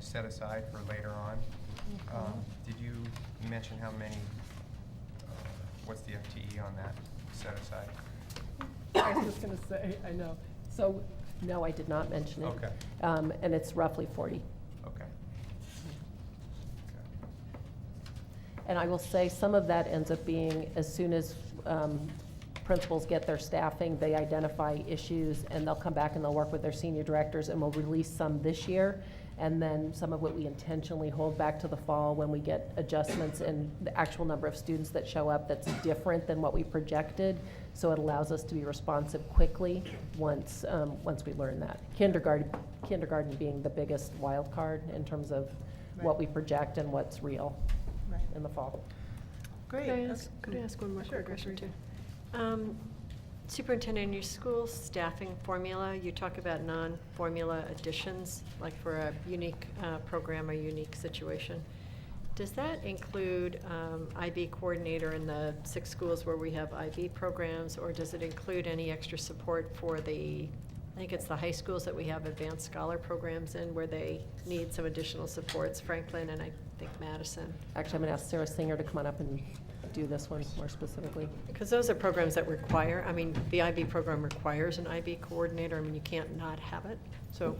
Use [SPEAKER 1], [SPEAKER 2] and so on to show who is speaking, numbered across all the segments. [SPEAKER 1] set aside for later on.
[SPEAKER 2] Mm-hmm.
[SPEAKER 1] Um, Did you mention how many, uh, what's the FTE on that set aside?
[SPEAKER 3] I was just gonna say, I know. So, no, I did not mention it.
[SPEAKER 1] Okay.
[SPEAKER 3] Um, and it's roughly forty.
[SPEAKER 1] Okay. Okay.
[SPEAKER 3] And I will say, some of that ends up being, as soon as um, principals get their staffing, they identify issues, and they'll come back and they'll work with their senior directors, and we'll release some this year. And then some of what we intentionally hold back to the fall when we get adjustments and the actual number of students that show up that's different than what we projected. So it allows us to be responsive quickly once, um, once we learn that. Kindergarten, kindergarten being the biggest wild card in terms of what
[SPEAKER 2] Right.
[SPEAKER 3] we project and what's real
[SPEAKER 2] Right.
[SPEAKER 3] in the fall.
[SPEAKER 2] Great.
[SPEAKER 4] Could I
[SPEAKER 2] that's-
[SPEAKER 4] ask, could I ask one more
[SPEAKER 2] Sure,
[SPEAKER 4] quick
[SPEAKER 2] go for
[SPEAKER 4] question
[SPEAKER 2] it.
[SPEAKER 4] too? Um, Superintendent, in your school staffing formula, you talk about non-formula additions, like for a unique uh, program or unique situation. Does that include um, IB coordinator in the six schools where we have IB programs? Or does it include any extra support for the, I think it's the high schools that we have advanced scholar programs in where they need some additional supports, Franklin and I think Madison?
[SPEAKER 3] Actually, I'm going to ask Sarah Singer to come on up and do this one more specifically.
[SPEAKER 4] Because those are programs that require, I mean, the IB program requires an IB coordinator, I mean, you can't not have it, so.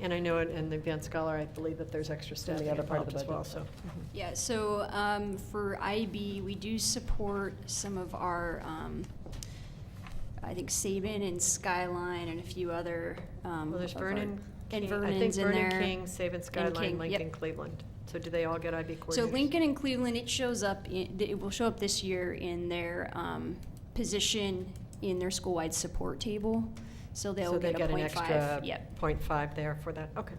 [SPEAKER 4] And I know in- in the advanced scholar, I believe that there's extra
[SPEAKER 3] in the
[SPEAKER 4] staff
[SPEAKER 3] other part of
[SPEAKER 4] involved
[SPEAKER 3] the
[SPEAKER 4] as well, so.
[SPEAKER 3] budget. Mm-hmm.
[SPEAKER 5] Yeah, so um, for IB, we do support some of our, um, I think Saban and Skyline and a few other. um,
[SPEAKER 4] Well, there's
[SPEAKER 5] of our-
[SPEAKER 4] Vernon
[SPEAKER 5] And
[SPEAKER 4] King, I think
[SPEAKER 5] Vernon's in
[SPEAKER 4] Vernon
[SPEAKER 5] there.
[SPEAKER 4] King, Saban
[SPEAKER 5] King,
[SPEAKER 4] Skyline, Lincoln,
[SPEAKER 5] yep.
[SPEAKER 4] Cleveland. So do they all get IB coordinators?
[SPEAKER 5] So Lincoln and Cleveland, it shows up, in- it will show up this year in their um, position in their school-wide support table. So they'll
[SPEAKER 4] So they
[SPEAKER 5] get a
[SPEAKER 4] get an
[SPEAKER 5] point
[SPEAKER 4] extra
[SPEAKER 5] five. Yep.
[SPEAKER 4] point five there for that, okay.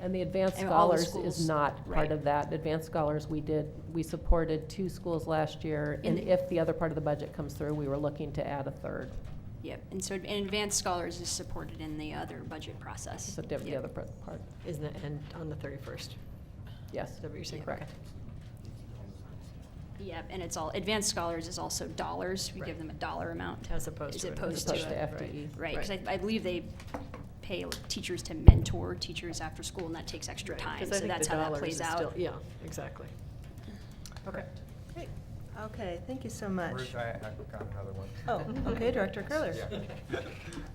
[SPEAKER 3] And the Advanced
[SPEAKER 5] And all the
[SPEAKER 3] Scholars is
[SPEAKER 5] schools,
[SPEAKER 3] not part
[SPEAKER 5] right.
[SPEAKER 3] of that. Advanced Scholars, we did, we supported two schools last year, and
[SPEAKER 5] And-
[SPEAKER 3] if the other part of the budget comes through, we were looking to add a third.
[SPEAKER 5] Yep. And so, and Advanced Scholars is supported in the other budget process.
[SPEAKER 3] So diff- the
[SPEAKER 5] Yep.
[SPEAKER 3] other part, part.
[SPEAKER 4] Isn't it, and on the thirty-first?
[SPEAKER 3] yes.
[SPEAKER 4] Is that what you're saying?
[SPEAKER 3] Correct.
[SPEAKER 4] Okay.
[SPEAKER 5] Yep, and it's all, advanced scholars is also dollars, we
[SPEAKER 4] Right.
[SPEAKER 5] give them a dollar amount.
[SPEAKER 4] As opposed to.
[SPEAKER 5] As
[SPEAKER 4] an
[SPEAKER 5] opposed
[SPEAKER 3] Opposed to
[SPEAKER 5] to,
[SPEAKER 4] associate,
[SPEAKER 3] FTE.
[SPEAKER 4] right.
[SPEAKER 5] right, because I,
[SPEAKER 4] Right.
[SPEAKER 5] I believe they pay teachers to mentor teachers after school, and that takes extra
[SPEAKER 4] Right,
[SPEAKER 5] time,
[SPEAKER 4] 'cause I
[SPEAKER 5] so
[SPEAKER 4] think
[SPEAKER 5] that's
[SPEAKER 4] the
[SPEAKER 5] how that
[SPEAKER 4] dollars
[SPEAKER 5] plays
[SPEAKER 4] is still-
[SPEAKER 5] out.
[SPEAKER 4] Yeah, exactly. Okay.
[SPEAKER 2] Great. Okay, thank you so much.
[SPEAKER 1] Ruth, I, I've got another one.
[SPEAKER 2] Oh, okay, Director Curler.
[SPEAKER 1] Yeah.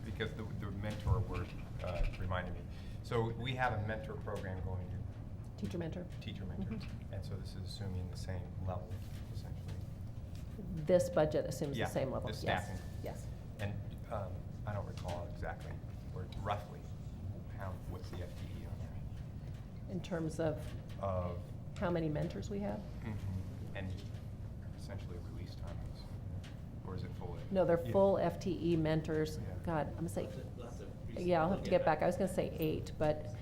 [SPEAKER 1] Because the, the mentor word, uh, reminded me. So we have a mentor program going,
[SPEAKER 3] Teacher mentor.
[SPEAKER 1] teacher mentor,
[SPEAKER 2] Mm-hmm.
[SPEAKER 1] and so this is assuming the same level essentially.
[SPEAKER 3] This budget assumes the
[SPEAKER 1] Yeah,
[SPEAKER 3] same level.
[SPEAKER 1] the
[SPEAKER 3] Yes.
[SPEAKER 1] staffing.
[SPEAKER 3] Yes.
[SPEAKER 1] And, um, I don't recall exactly, or roughly, how, what's the FTE on
[SPEAKER 3] In terms of
[SPEAKER 1] that? Of, mm-hmm,
[SPEAKER 3] how many mentors we have?
[SPEAKER 1] and essentially release time, I'm assuming, or is it full?
[SPEAKER 3] No, they're
[SPEAKER 1] Yeah.
[SPEAKER 3] full FTE mentors.
[SPEAKER 1] Yeah.
[SPEAKER 3] God, I'm going to say Yeah, I'll have to get back. I was gonna say eight, but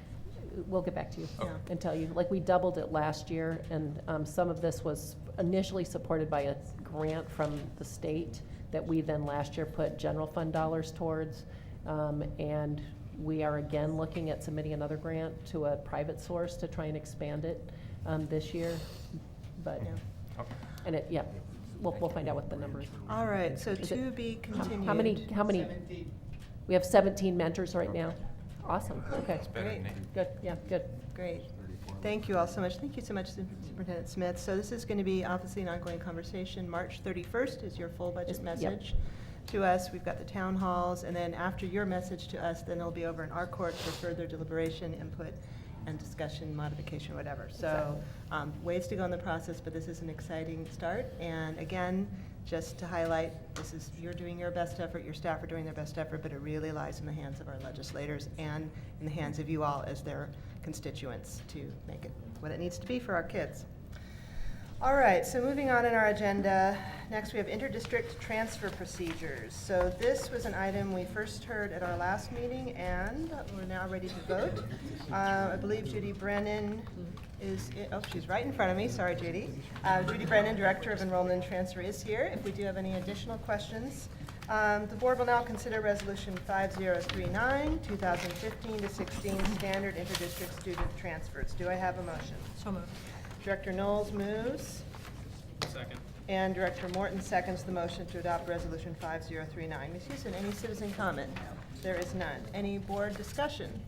[SPEAKER 3] we'll get back to you
[SPEAKER 1] Okay.
[SPEAKER 3] and tell you. Like, we doubled it last year, and um, some of this was initially supported by a grant from the state that we then last year put general fund dollars towards. Um, And we are again looking at submitting another grant to a private source to try and expand it um, this year. But,
[SPEAKER 2] Yeah.
[SPEAKER 1] Mm-hmm. Okay.
[SPEAKER 3] and it, yeah, we'll, we'll find out what the number is.
[SPEAKER 2] All right, so
[SPEAKER 3] Is it-
[SPEAKER 2] to be
[SPEAKER 3] How-
[SPEAKER 2] continued.
[SPEAKER 3] How many, how many? We have 17 mentors right now.
[SPEAKER 1] Okay.
[SPEAKER 3] Awesome, okay.
[SPEAKER 1] It's better than
[SPEAKER 2] Great.
[SPEAKER 1] eight.
[SPEAKER 3] Good, yeah, good.
[SPEAKER 2] Great. Thank you all so much. Thank you so much, Su- Superintendent Smith. So this is going to be obviously an ongoing conversation. March 31st is your full
[SPEAKER 3] Is-
[SPEAKER 2] budget
[SPEAKER 3] yep.
[SPEAKER 2] message to us. We've got the town halls, and then after your message to us, then it'll be over in our court for further deliberation, input, and discussion, modification, whatever. So
[SPEAKER 3] Exactly.
[SPEAKER 2] um, ways to go in the process, but this is an exciting start. And again, just to highlight, this is, you're doing your best effort, your staff are doing their best effort, but it really lies in the hands of our legislators and in the hands of you all as their constituents to make it what it needs to be for our kids. All right, so moving on in our agenda, next we have interdistrict transfer procedures. So this was an item we first heard at our last meeting, and we're now ready to vote. Uh, I believe Judy Brennan is, i- oh, she's right in front of me, sorry, Judy. Uh, Judy Brennan, Director of Enrollment and Transfer, is here if we do have any additional questions. Um, The board will now consider Resolution 5039, 2015 to 16, Standard Interdistrict Student Transfers. Do I have a motion?
[SPEAKER 4] So moved.
[SPEAKER 2] Director Knowles moves,
[SPEAKER 6] Second.
[SPEAKER 2] and Director Morton seconds the motion to adopt Resolution 5039. Ms. Houston, any citizen comment? There is none. Any board discussion?